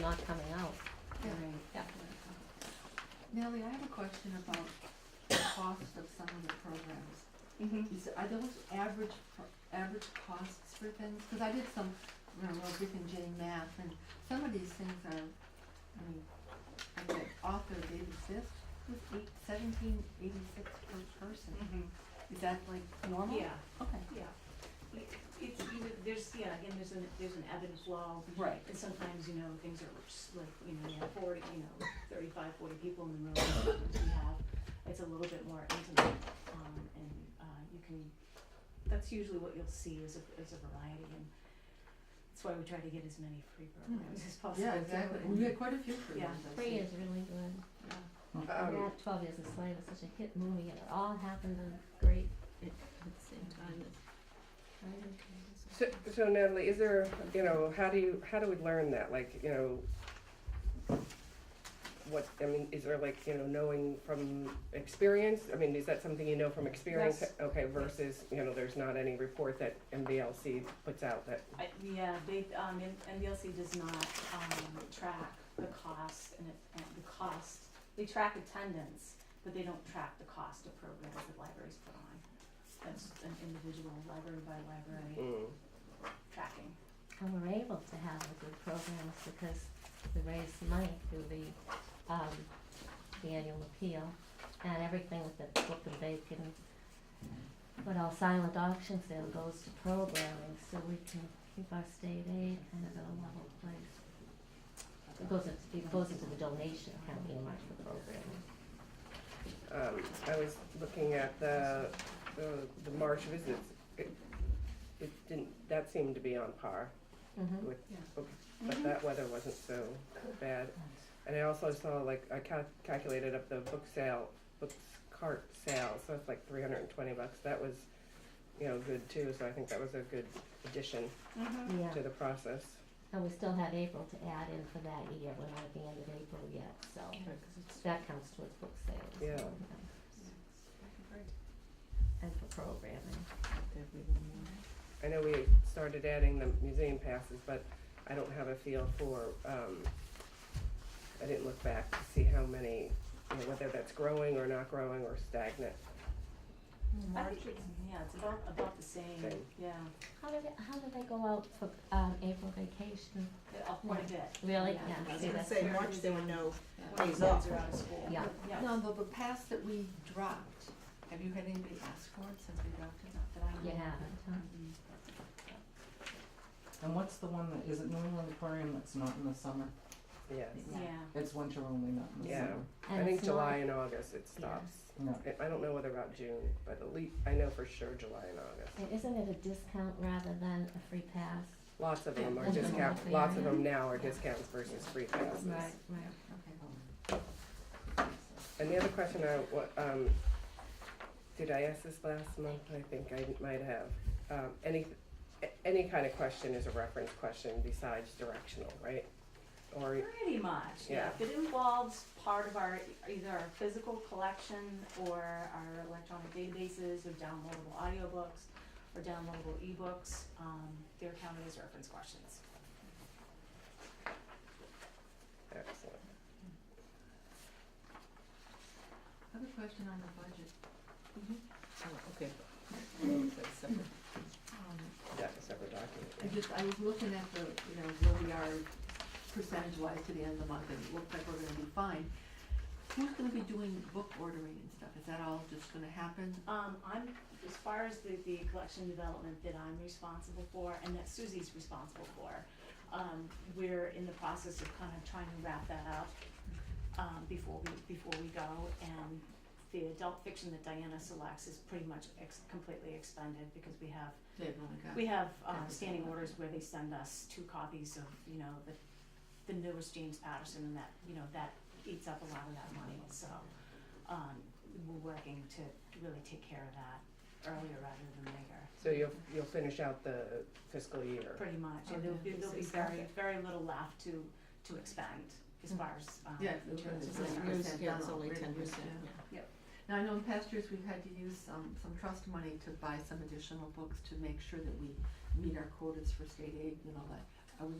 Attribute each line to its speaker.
Speaker 1: not coming out.
Speaker 2: Yeah.
Speaker 1: Yeah.
Speaker 2: Nellie, I have a question about the cost of some of the programs.
Speaker 3: Mm-hmm.
Speaker 2: Is, are those average, pro- average costs for things? Cause I did some, you know, real Rick and Jane math, and some of these things are, I mean, like the author David Sisk was eight, seventeen eighty-six per person. Is that like normal?
Speaker 3: Mm-hmm. Yeah,
Speaker 2: Okay.
Speaker 3: yeah. It- It's, you know, there's, yeah, again, there's an, there's an ebb and flow.
Speaker 2: Right.
Speaker 3: And sometimes, you know, things are s- like, you know, you have forty, you know, thirty-five, forty people in the room. Sometimes we have, it's a little bit more intimate, um, and, uh, you can, that's usually what you'll see is a, is a variety, and that's why we try to get as many free programs as possible.
Speaker 2: Hmm. Yeah, exactly. We had quite a few for
Speaker 3: Yeah.
Speaker 2: ones, I
Speaker 1: Three
Speaker 2: see.
Speaker 1: is really good.
Speaker 2: Yeah. Um,
Speaker 1: And that Twelve Years a Slave was such a hit movie and it all happened on great at the same time.
Speaker 4: So, so Natalie, is there, you know, how do you, how do we learn that, like, you know, what, I mean, is there like, you know, knowing from experience, I mean, is that something you know from experience?
Speaker 3: Yes.
Speaker 4: Okay, versus, you know, there's not any report that MBLC puts out that,
Speaker 3: I, yeah, they, um, N- NBLC does not, um, track the cost and it, and the cost, they track attendance, but they don't track the cost of programs that libraries put on. That's an individual library by library
Speaker 4: mm,
Speaker 3: tracking.
Speaker 1: And we're able to have the good programs because we raise money through the, um, the annual appeal and everything with the book and bacon. What all silent auction sale goes to programming, so we can keep our state aid kind of at a level place. It goes into, it goes into the donation account, you much for the programming.
Speaker 4: um, I was looking at the, the, the March visits, it, it didn't, that seemed to be on par
Speaker 1: Mm-hmm.
Speaker 4: with,
Speaker 2: Yeah.
Speaker 3: Mhm.
Speaker 2: Mm-hmm.
Speaker 4: but that weather wasn't so bad. And I also saw like I cal- calculated up the book sale, books cart sale, so it's like three hundred and twenty bucks. That was, you know, good too. So I think that was a good addition
Speaker 2: Mm-hmm.
Speaker 1: Yeah,
Speaker 4: to the process.
Speaker 1: and we still have April to add in for that year, we're not at the end of April yet, so that counts towards book sales.
Speaker 4: Yeah.
Speaker 1: And for programming.
Speaker 4: I know we started adding the museum passes, but I don't have a feel for. Um, I didn't look back to see how many, you know, whether that's growing or not growing or stagnant.
Speaker 5: Mm-hmm.
Speaker 3: I think it's, yeah, it's about, about the same,
Speaker 4: Same.
Speaker 3: yeah,
Speaker 1: How did it, how did I go out for um, April vacation?
Speaker 3: uh, quite a bit.
Speaker 1: Really?
Speaker 3: Yeah.
Speaker 1: Yeah.
Speaker 5: I was
Speaker 1: See,
Speaker 5: gonna
Speaker 1: that's
Speaker 5: say,
Speaker 1: where-
Speaker 5: March, there were no
Speaker 3: When
Speaker 5: days
Speaker 3: the
Speaker 5: off.
Speaker 3: kids are out of school.
Speaker 1: Yeah.
Speaker 3: Yeah,
Speaker 2: No, the, the pass that we dropped, have you had anybody ask for it since we dropped it?
Speaker 3: not that I know
Speaker 1: You
Speaker 3: of.
Speaker 1: haven't, huh?
Speaker 3: Mm-mm.
Speaker 6: And what's the one that, is it New England Aquarium that's not in the summer?
Speaker 4: Yes.
Speaker 3: Yeah,
Speaker 6: It's winter only, not in the
Speaker 4: Yeah.
Speaker 6: summer.
Speaker 1: And
Speaker 4: I think
Speaker 1: it's not-
Speaker 4: July and August it
Speaker 1: Yeah.
Speaker 4: stops.
Speaker 6: No.
Speaker 4: I- I don't know whether about June, but at least I know for sure July and August.
Speaker 1: and Isn't it a discount rather than a free pass?
Speaker 4: Lots of them are
Speaker 1: Yeah.
Speaker 4: discount,
Speaker 1: Yeah.
Speaker 4: lots of them now are discounts versus free passes.
Speaker 1: right.
Speaker 4: And the other question I, wa- um, did I ask this last month? I think I might have. Um, any, a- any kind of question is a reference question besides directional, right? Or,
Speaker 3: Pretty much, yeah. If it involves part of our, either our physical collection or our electronic databases or downloadable audiobooks or downloadable ebooks, um, they're counted as reference questions.
Speaker 4: uh, excellent.
Speaker 2: I have a question on the budget.
Speaker 5: Oh, okay. That's separate.
Speaker 2: Um,
Speaker 4: That's a separate
Speaker 2: I
Speaker 4: document.
Speaker 2: just, I was looking at the, you know, where we are percentage wise to the end of the month, and it looks like we're gonna be fine. Who's gonna be doing book ordering and stuff? Is that all just gonna happen?
Speaker 3: Um, I'm, as far as the, the collection development that I'm responsible for and that Suzie's responsible for, um, we're in the process of kind of trying to wrap that up, um, before we, before we go. And the adult fiction that Diana selects is pretty much ex- completely expended because we have
Speaker 2: They've only got.
Speaker 3: We have um,
Speaker 2: Everything.
Speaker 3: standing orders where they send us two copies of, you know, the, the newest James Patterson and that, you know, that eats up a lot of that money, so, um, we're working to really take care of that earlier rather than later,
Speaker 4: So you'll, you'll finish out the fiscal year.
Speaker 3: pretty much, and there'll be, there'll be very, very little left to, to expend as far as, um,
Speaker 2: Yeah, in
Speaker 5: It's
Speaker 2: terms of
Speaker 5: like
Speaker 2: ten
Speaker 5: years,
Speaker 2: percent
Speaker 5: yeah, it's
Speaker 2: down,
Speaker 5: only
Speaker 2: really,
Speaker 5: ten percent,
Speaker 2: yeah.
Speaker 5: yeah.
Speaker 2: Now, I know in past years, we've had to use some, some trust money to buy some additional books to make sure that we meet our quotas for state aid and all that.